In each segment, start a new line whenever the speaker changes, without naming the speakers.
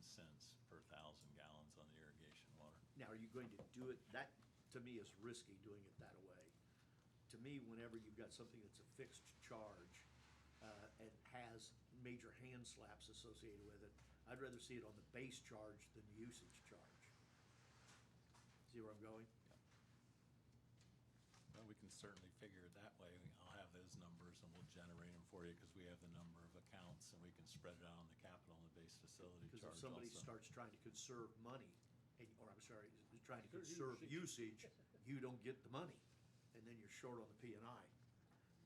cents per thousand gallons on the irrigation water.
Now, are you going to do it, that, to me, is risky, doing it that way. To me, whenever you've got something that's a fixed charge, uh, and has major hand slaps associated with it, I'd rather see it on the base charge than the usage charge. See where I'm going?
Well, we can certainly figure it that way. I'll have those numbers and we'll generate them for you because we have the number of accounts and we can spread it out on the capital and the base facility charge
Because
also.
if somebody starts trying to conserve money, and, or I'm sorry, is trying to
Their
conserve
usage.
usage, you don't get the money, and then you're short on the P and I.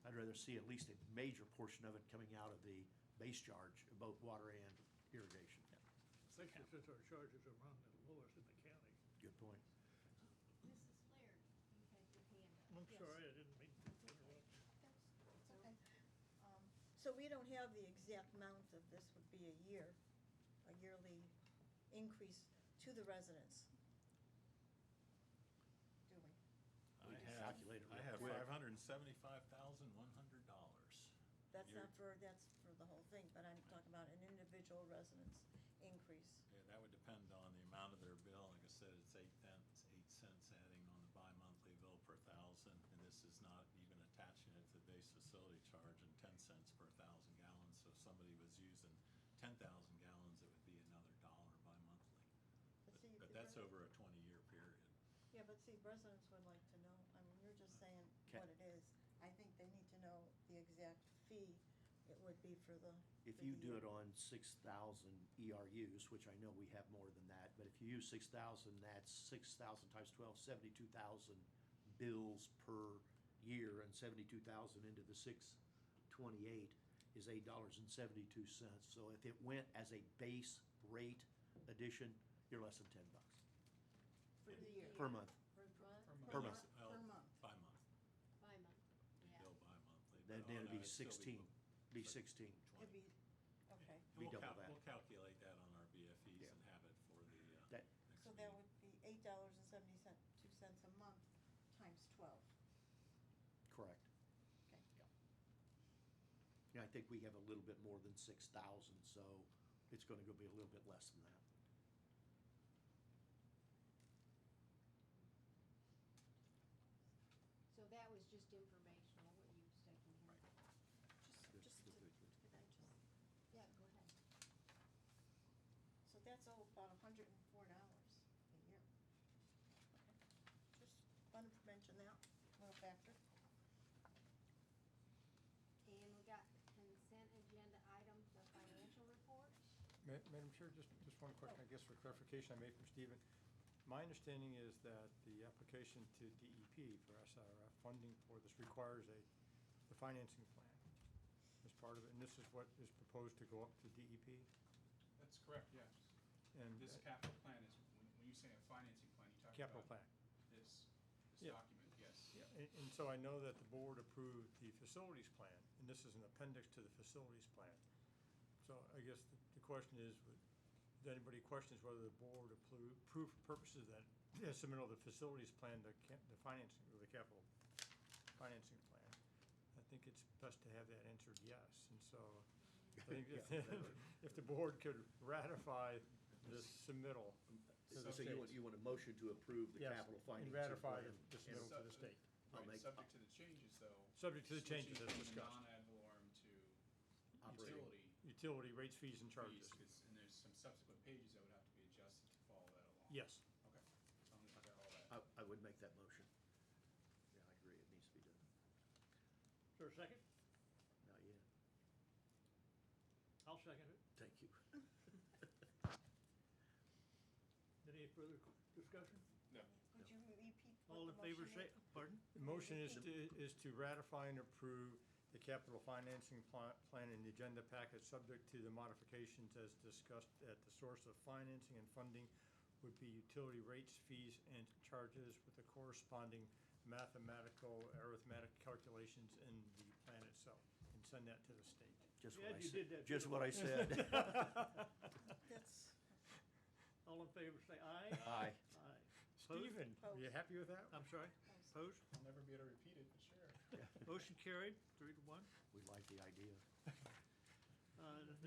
I'd rather see at least a major portion of it coming out of the base charge, both water and irrigation.
Especially since our charges are among the lowest in the county.
Good point.
I'm
Mrs. Flair, you had your hand up.
Yes.
sorry, I didn't mean to interrupt.
That's- it's okay. Um, So we don't have the exact amount that this would be a year, a yearly increase to the residents, do we?
I
just
have,
calculate it
I
real
have
quick.
five hundred and seventy-five thousand, one hundred dollars.
That's not for, that's for the whole thing, but I'm talking about an individual residence increase.
Yeah, that would depend on the amount of their bill. Like I said, it's eight cents, eight cents adding on the bi-monthly bill per thousand. And this is not even attaching it to the base facility charge and ten cents per thousand gallons. So if somebody was using ten thousand gallons, it would be another dollar bi-monthly.
But see,
But- But
the
that's
rest-
over a twenty-year period.
Yeah, but see, residents would like to know, I mean, you're just saying what
Okay.
it is. I think they need to know the exact fee it would be for the.
If
for
you
the
do it
year.
on six thousand ERUs, which I know we have more than that, but if you use six thousand, that's six thousand times twelve, seventy-two thousand bills per year, and seventy-two thousand into the six twenty-eight is eight dollars and seventy-two cents. So if it went as a base rate addition, you're less than ten bucks
For the year.
per month.
Per
Per
Per month.
month?
month.
Well,
Per month.
Bi-month,
By month, yeah.
bill bi-monthly. but
Then
on
Oh, it'd be
a- still
sixteen, be sixteen.
It'd be, okay,
And
Be
we'll
double
cal-
that.
We'll calculate that on our BFEs
Yeah.
and have it for the, uh,
That-
next
so that
meeting.
would be eight dollars and seventy cent, two cents a month times twelve,
Correct.
okay.
Yeah, I think we have a little bit more than six thousand, so it's gonna go be a little bit less than that.
So that was just informational, what you was taking here.
Right.
Just,
Good,
just, to-
good, good,
could I just,
Yeah, go ahead.
so that's all about a hundred and four dollars a year. Just wanted to mention that, little factor.
And we got consent agenda item, the financial report.
Ma- Madam Chair, just, just one question, I guess, for clarification I made from Stephen. My understanding is that the application to DEP for SRF funding for this requires a, the financing plan as part of it, and this is what is proposed to go up to DEP?
That's correct, yes.
And-
This capital plan is, when- when you say a financing plan, you talk about.
Capital plan.
This, this
Yeah.
document, yes.
And, and so I know that the board approved the facilities plan, and this is an appendix to the facilities plan. So I guess the, the question is, would- if anybody questions whether the board appro- approved for purposes of that, the submittal of the facilities plan, the cap, the financing, or the capital financing plan? I think it's best to have that answered yes, and so I think if, if the board could ratify this submittal. to the
So you want,
state.
you want a motion to approve the
Yes,
capital financing
and
plan?
ratify the submittal.
And-
to the
Sub-
state.
I'll make-
Right, subject to the changes, though.
Subject to the changes as
switching from the
discussed.
Non-ad valorem to
Operating.
utility
Utility rates, fees, and
fees,
charges.
'cause- and there's some subsequent pages that would have to be adjusted to follow that along.
Yes.
Okay, so I'm gonna figure out all that.
I, I would make that motion. Yeah, I agree, it needs to be done.
Is there a second?
Not yet.
I'll second it.
Thank you.
Any further discussion?
No.
Would you repeat what
All
the
in favor
motion
say,
is?
pardon?
The motion is to, is to ratify and approve the capital financing pla- plan and the agenda package, subject to the modifications as discussed at the source of financing and funding would be utility rates, fees, and charges with the corresponding mathematical, arithmetic calculations in the plan itself, and send that to the state.
Just what I
Glad you did that,
said, just
too.
what I said.
That's,
All in favor say aye.
Aye.
Aye. Opposed?
Stephen, are you happy with that?
I'm sorry, opposed?
I'll never be able to repeat it, but sure.
Motion carried, three to one.
We like the idea.
Uh,